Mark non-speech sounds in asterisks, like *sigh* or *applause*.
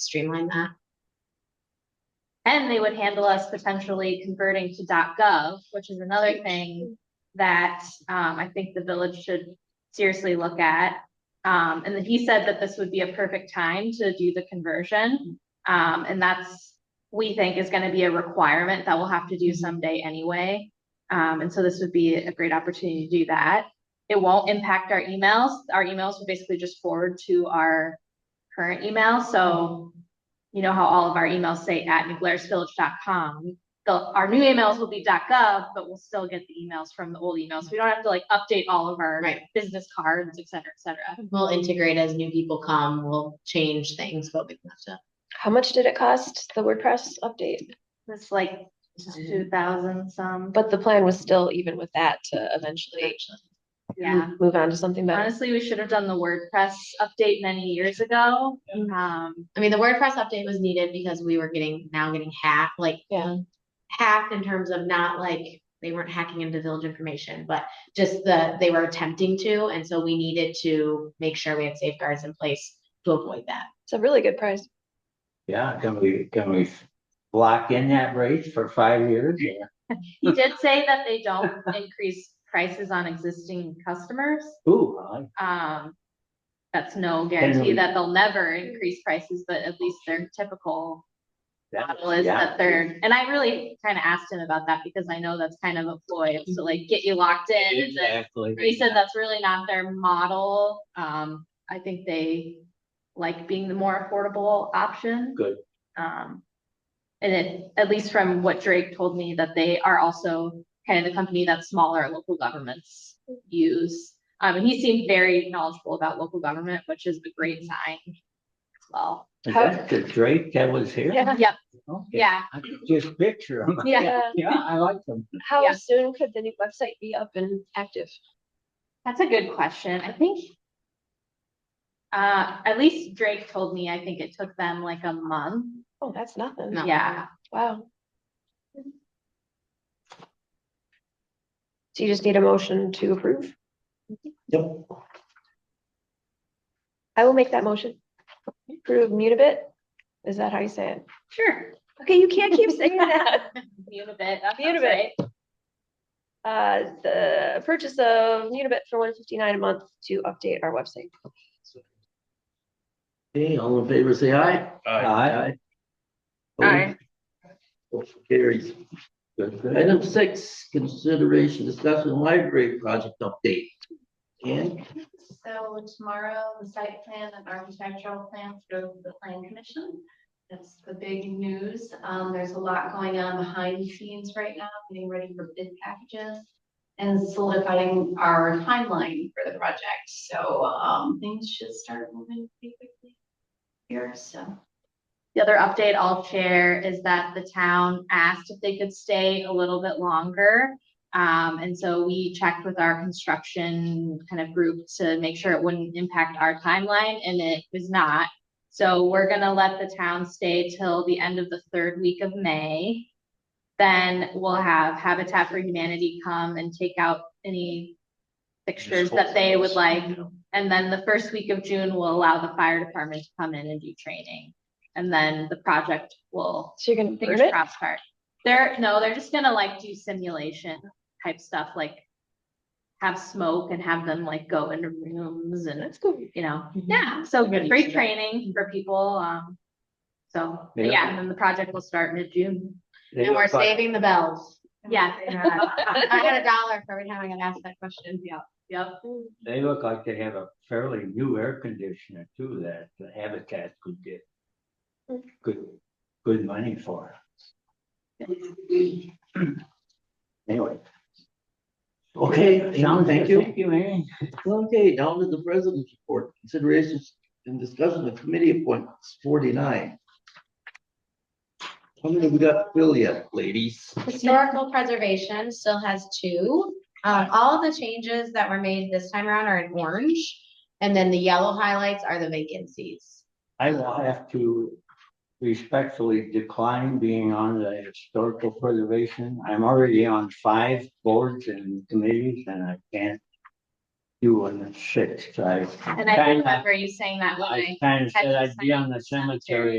streamline that. And they would handle us potentially converting to gov, which is another thing that um I think the village should seriously look at. Um, and then he said that this would be a perfect time to do the conversion. Um, and that's, we think is gonna be a requirement that we'll have to do someday anyway. Um, and so this would be a great opportunity to do that. It won't impact our emails. Our emails will basically just forward to our current email, so you know how all of our emails say at newglairsvillage.com. The, our new emails will be .gov, but we'll still get the emails from the old emails. We don't have to like update all of our Right. business cards, et cetera, et cetera. We'll integrate as new people come, we'll change things, but we have How much did it cost, the WordPress update? It's like two thousand some, but But the plan was still even with that to to. eventually yeah. move on to something better. Honestly, we should have done the WordPress update many years ago. Um, I mean, the WordPress update was needed because we were getting, now getting hacked, like Yeah. hacked in terms of not like, they weren't hacking into village information, but just the, they were attempting to, and so we needed to make sure we had safeguards in place to avoid that. It's a really good price. Yeah, can we, can we lock in that rate for five years? he did say that they don't increase prices on existing customers. Ooh, I like- Um, that's no guarantee we- that they'll never increase prices, but at least their typical that, model is yeah. that they're, and I really kind of asked him about that because I know that's kind of a ploy to like get you locked in. and then- Exactly. But He said that's really not their model. Um, I think they like being the more affordable option. Good. Um, and it, at least from what Drake told me, that they are also kind of the company that smaller local governments use. Um, and he seemed very knowledgeable about local government, which is a great sign as well. Is that the Drake that was here? Yeah. Yep, Okay. yeah, I could Just picture him. yeah. Yeah, I like *laughs* him. How Yeah. soon could the new website be up and active? That's a good question. I think. Uh, at least Drake told me, I think it took them like a month. Oh, that's nothing. No. Yeah, Wow. So you just need a motion to approve? Yep. I will make that motion. Approve Mutabit? Is that how you say it? sure. Okay, you can't keep *laughs* saying that. Unibit, that sounds Unibit. Uh, the purchase of Unibit for one fifty-nine a month to update our website. Okay, all in favor, say aye. Aye. Aye. Motion Carries. Good, good. Item six, consideration discussion library project update. And So tomorrow, the site plan and architectural plans go to the plan commission. That's the big news. Um, there's a lot going on behind the scenes right now, getting ready for bid packages and solidifying our timeline for the project. So, um, things should start moving pretty quickly here, so. The other update I'll share is that the town asked if they could stay a little bit longer. Um, and so we checked with our construction kind of group to make sure it wouldn't impact our timeline and it was not. So we're gonna let the town stay till the end of the third week of May. Then we'll have Habitat for Humanity come and take out any fixtures that they would like. And then the first week of June will allow the fire department to come in and do training. And then the project will, So you're gonna burn fingers it? crossed, start. They're, no, they're just gonna like do simulation type stuff, like have smoke and have them like go into rooms and, That's cool. you know, Mhm. yeah, so I'm gonna free use that. training for people, um. So, but Yeah. yeah, and then the project will start mid-June. And we're saving the bells. Yeah. *laughs* I got a dollar for every time I got asked that question. Yeah. Yep. They look like they have a fairly new air conditioner too that the Habitat could get good, good money for. Anyway. Okay, Sean, thank you. Thank you, Amy. Okay, down to the president's report, considerations and discussion of committee appointments, forty-nine. How many we got to fill yet, ladies? Historical preservation still has two. Uh, all the changes that were made this time around are in orange. And then the yellow highlights are the vacancies. I will have to respectfully decline being on the historical preservation. I'm already on five boards and committees and I can't do one at six. I And I kinda- remember you saying that when I I kind of had said you I'd be sign on the cemetery. cemetery